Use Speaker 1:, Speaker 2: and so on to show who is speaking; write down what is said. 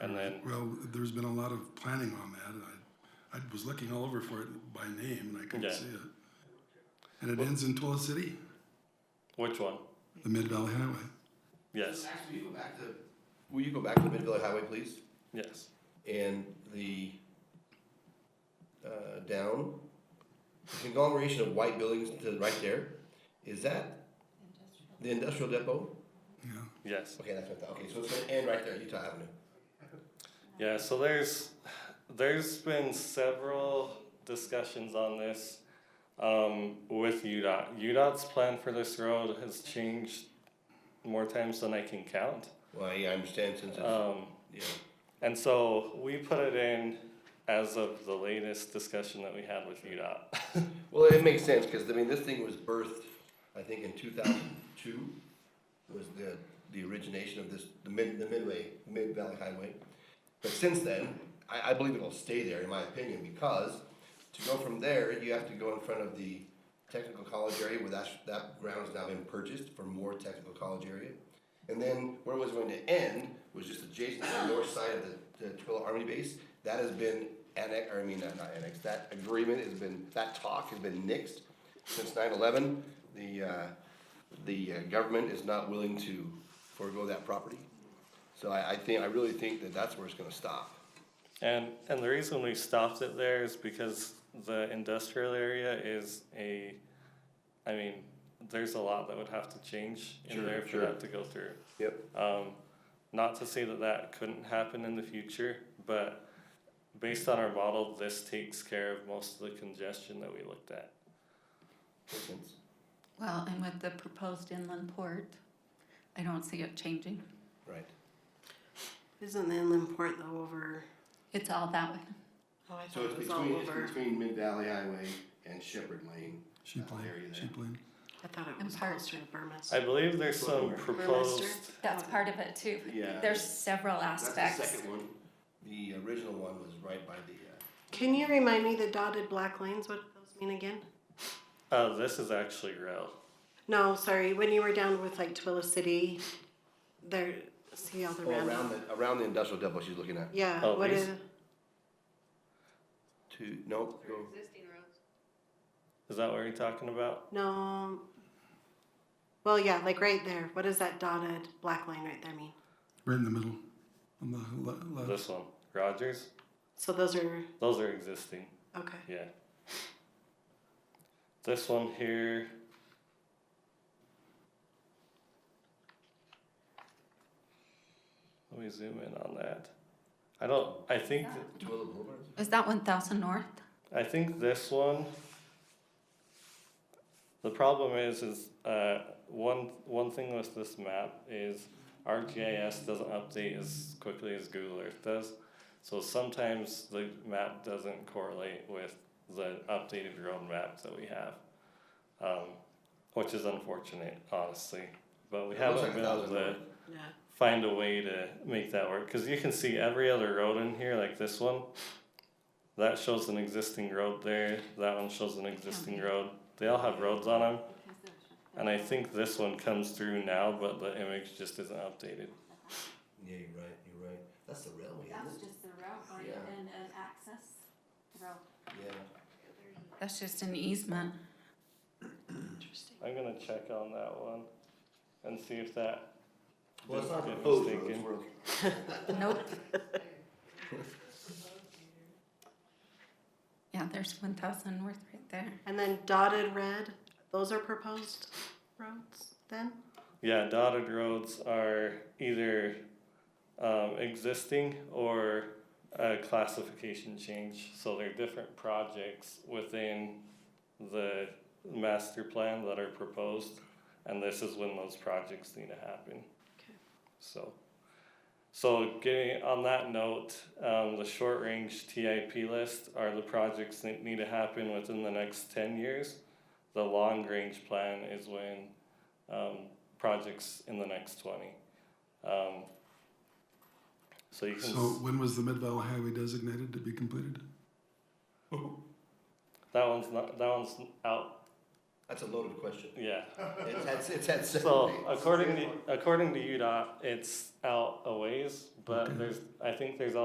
Speaker 1: in.
Speaker 2: Well, there's been a lot of planning on that, and I, I was looking all over for it by name, and I couldn't
Speaker 1: Okay.
Speaker 2: see it. And it ends in Twila City,
Speaker 1: Which one?
Speaker 2: the Mid Valley Highway.
Speaker 1: Yes,
Speaker 3: Max, will you go back to, will you go back to the Mid Valley Highway, please?
Speaker 1: yes.
Speaker 3: And the, uh, down, the conglomeration of white buildings to the right there, is that the industrial depot?
Speaker 2: Yeah,
Speaker 1: Yes.
Speaker 3: Okay, that's what I thought, okay, so it's gonna end right there, Utah Avenue.
Speaker 1: Yeah, so there's there's been several discussions on this um, with UDOT. UDOT's plan for this road has changed more times than I can count.
Speaker 3: Well, yeah, I understand since it's,
Speaker 1: Um,
Speaker 3: yeah,
Speaker 1: and so we put it in as of the latest discussion that we had with UDOT.
Speaker 3: well, it makes sense, cause I mean, this thing was birthed, I think in two thousand two, was the, the origination of this, the mid, the midway, Mid Valley Highway. But since then, I, I believe it'll stay there, in my opinion, because to go from there, you have to go in front of the technical college area where that, that ground's now been purchased for more technical college area. And then where it was going to end was just adjacent to the north side of the, the Twilla Army Base. That has been annex, or I mean, not not annexed, that agreement has been, that talk has been nixed since nine eleven. The, uh, the uh, government is not willing to forego that property. So I, I think, I really think that that's where it's gonna stop.
Speaker 1: and and the reason we stopped it there is because the industrial area is a, I mean, there's a lot that would have to change in
Speaker 3: Sure,
Speaker 1: there for
Speaker 3: sure.
Speaker 1: that to go through.
Speaker 3: Yep.
Speaker 1: Um, not to say that that couldn't happen in the future, but based on our model, this takes care of most of the congestion that we looked at.
Speaker 3: Makes sense.
Speaker 4: Well, and with the proposed inland port, I don't see it changing.
Speaker 3: Right.
Speaker 5: Isn't the inland port though over?
Speaker 4: It's all that way.
Speaker 5: Oh, I
Speaker 3: So
Speaker 5: thought
Speaker 3: it's
Speaker 5: it was all
Speaker 3: between, it's
Speaker 5: over.
Speaker 3: between Mid Valley Highway and Shepherd Lane.
Speaker 2: sheep
Speaker 3: That
Speaker 2: lane,
Speaker 3: area there.
Speaker 2: sheep lane.
Speaker 5: I thought it
Speaker 4: And
Speaker 5: was
Speaker 4: part-
Speaker 5: closer to Burmester.
Speaker 1: I believe there's some
Speaker 3: Burmester?
Speaker 1: proposed,
Speaker 4: That's part of it too.
Speaker 3: Yeah.
Speaker 4: There's several
Speaker 3: That's the
Speaker 4: aspects.
Speaker 3: second one. The original one was right by the, uh,
Speaker 5: Can you remind me the dotted black lines? What do those mean again?
Speaker 1: uh, this is actually rail.
Speaker 5: No, sorry. When you were down with like Twilla City, there. See all the
Speaker 3: uh, oh,
Speaker 5: random.
Speaker 3: around the, around the industrial depot she's looking at.
Speaker 5: Yeah.
Speaker 1: Oh,
Speaker 5: what
Speaker 1: these-
Speaker 5: is?
Speaker 3: Two, nope, go.
Speaker 1: Is that what you're talking about?
Speaker 5: No. Well, yeah, like right there. What does that dotted black line right there mean?
Speaker 2: Right in the middle, on the
Speaker 3: Uh-huh.
Speaker 2: le- left.
Speaker 1: This one, Rogers?
Speaker 5: So those are
Speaker 1: Those are existing,
Speaker 5: okay.
Speaker 1: yeah. This one here, let me zoom in on that. I don't, I think, that-
Speaker 3: Twilla Boulevard?
Speaker 4: Is that one thousand north?
Speaker 1: I think this one. The problem is, is uh, one one thing with this map is ArcGIS doesn't update as quickly as Google Earth does, so sometimes the map doesn't correlate with the updated road map that we have, um, which is unfortunate, honestly. But we
Speaker 3: It
Speaker 1: haven't
Speaker 3: looks like a
Speaker 1: been able
Speaker 3: thousand
Speaker 1: to
Speaker 3: north.
Speaker 5: Yeah.
Speaker 1: find a way to make that work because you can see every other road in here like this one that shows an existing road there that one shows an existing road they all have roads on them and i think this one comes through now but the image just isn't updated
Speaker 3: Yeah, you're right, you're right. That's the railway, isn't it?
Speaker 4: just the route
Speaker 3: Yeah.
Speaker 4: and an access road.
Speaker 3: Yeah.
Speaker 4: That's just an easement.
Speaker 5: Interesting.
Speaker 1: i'm going to check on that one and see if that
Speaker 3: Well, it's not
Speaker 1: Get
Speaker 3: proposed, road,
Speaker 1: mistaken.
Speaker 3: it's road.
Speaker 4: Nope. Yeah, there's one thousand north right there.
Speaker 5: And then dotted red. Those are proposed roads then.
Speaker 1: yeah dotted roads are either um, existing or a classification change so they're different projects within the master plan that are proposed and this is when those projects need to happen
Speaker 5: Okay.
Speaker 1: so so getting on that note um, the short range tip list are the projects that need to happen within the next 10 years the long range plan is when um, projects in the next 20 um, so you can
Speaker 2: So
Speaker 1: s-
Speaker 2: when was the Mid Valley Highway designated to be completed?
Speaker 1: That one's not. That one's out.
Speaker 3: That's a loaded question.
Speaker 1: Yeah.
Speaker 3: It's had, it's had several
Speaker 1: So
Speaker 3: names.
Speaker 1: according to according to UDOT, it's out a ways, but there's I think there's